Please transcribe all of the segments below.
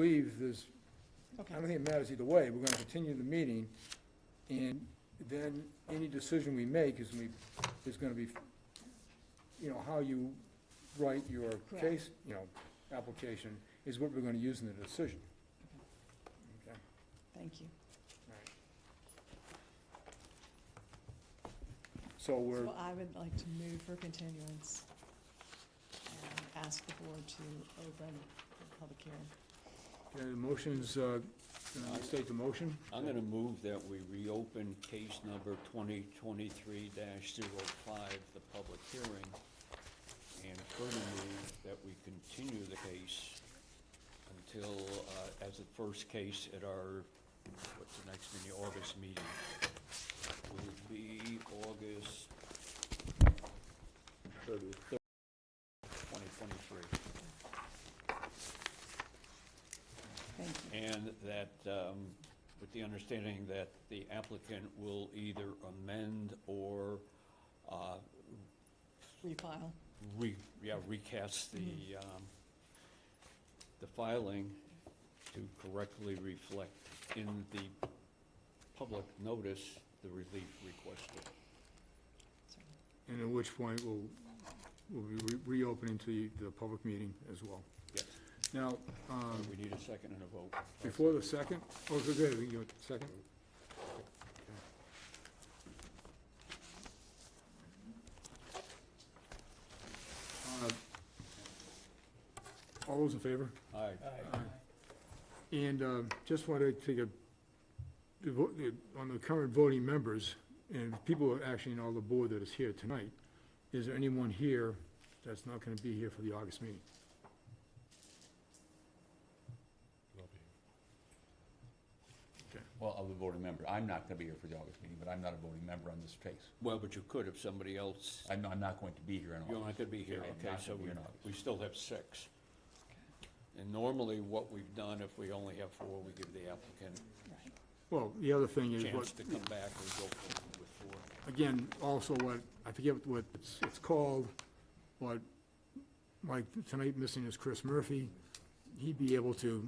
believe there's, I Okay, don't think it matters either way, we're gonna continue the meeting, and then any decision we make is we, is gonna be, you know, how you write your Correct. case, you know, application, is what we're gonna use in the decision. Okay, thank you. all right. So we're, So I would like to move for continuance and ask the board to open the public hearing. uh, motions, uh, uh, state the motion, I'm gonna move that we reopen case number twenty twenty-three 5 the public hearing, and further move that we continue the case until, uh, as the first case at our, what's the next meeting, August meeting? Will be August thirty-third, twenty twenty-three. Thank you. And that, um, with the understanding that the applicant will either amend or, uh, Refile. re, yeah, recast the, Mm-hmm. um, the filing to correctly reflect in the public notice the relief requested. Sorry. and at which point we'll, we'll be re- reopening to the public meeting as well. Yes, Now, um, we need a second and a vote. Before the second? Oh, good, good, we can go to the second. Uh, All those in favor? Aye. And um, just wanted to take a, the vo- the- on the current voting members, and people are actually in all the board that is here tonight, is there anyone here that's not going to be here for the August meeting? Well, of the voting member, I'm not gonna be here for the August meeting, but I'm not a voting member on this case. Well, but you could if somebody else, I'm, I'm not going to be here in you're not August. gonna be here, I'm okay, not so gonna be we, here in August. we still have six. And normally, what we've done, if we only have four, we give the applicant Right. Well, the other thing a is what, chance to come back and go forward with four. again, also what, I forget what it's, it's called, but like tonight missing is Chris Murphy. He'd be able to,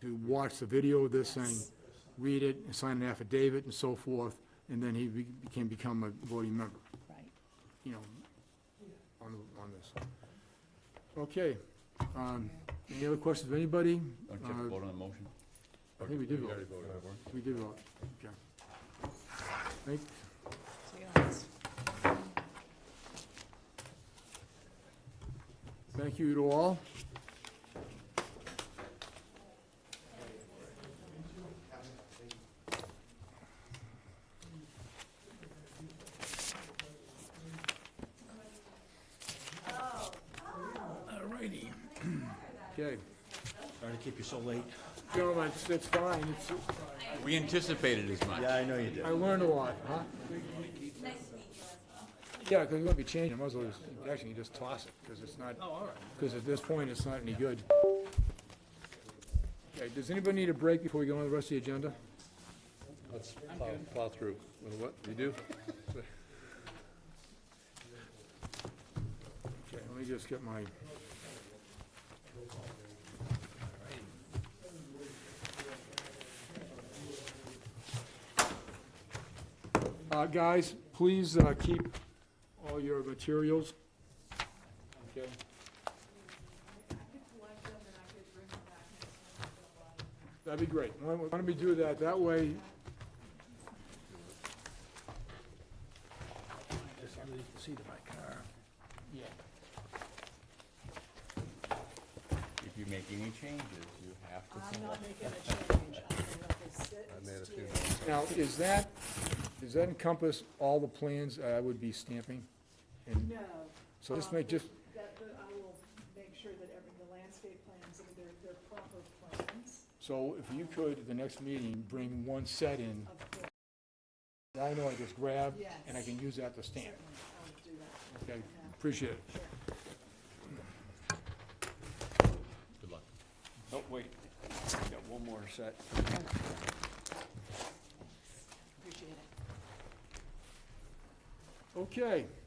to watch the video of this thing, Yes. read it, and sign an affidavit and so forth, and then he be- can become a voting member, Right. you know, on, on this. Okay, um, any other questions of anybody? Don't you have Uh, to vote on the motion? I think we did vote. already voted. We did vote, okay. Thank, So you guys, Thank you to all. Alrighty. Okay, Sorry to keep you so late. gentlemen, it's, it's fine, it's, We anticipated as much. Yeah, I know you did. I learned a lot, huh? Yeah, because we're gonna be changing, I might as well just, actually, you just toss it, because it's not, because at this point, it's not any good. Okay, does anybody need a break before we go on with the rest of the agenda? Let's plow, plow through. Well, What, you do? Okay, let me just get my. Uh, guys, please, uh, keep all your materials. Okay. That'd be great. Why don't why don't we do that? That way, Just underneath the seat of my car. If you make any changes, you have to. I'm not making a change. I'm gonna let this sit I made a few still. notes. Now, is that, does that encompass all the plans I would be stamping? And No. so just um, make, just, That, but I will make sure that every, the landscape plans, I mean, they're, they're proper plans so if you could, at the next meeting, bring one set in of the, that I know I just grabbed, yes. and I can use that to stamp. Certainly, I would do that, Okay, appreciate it. sure. Good luck. Oh, wait, we got one more set. Appreciate it. Okay,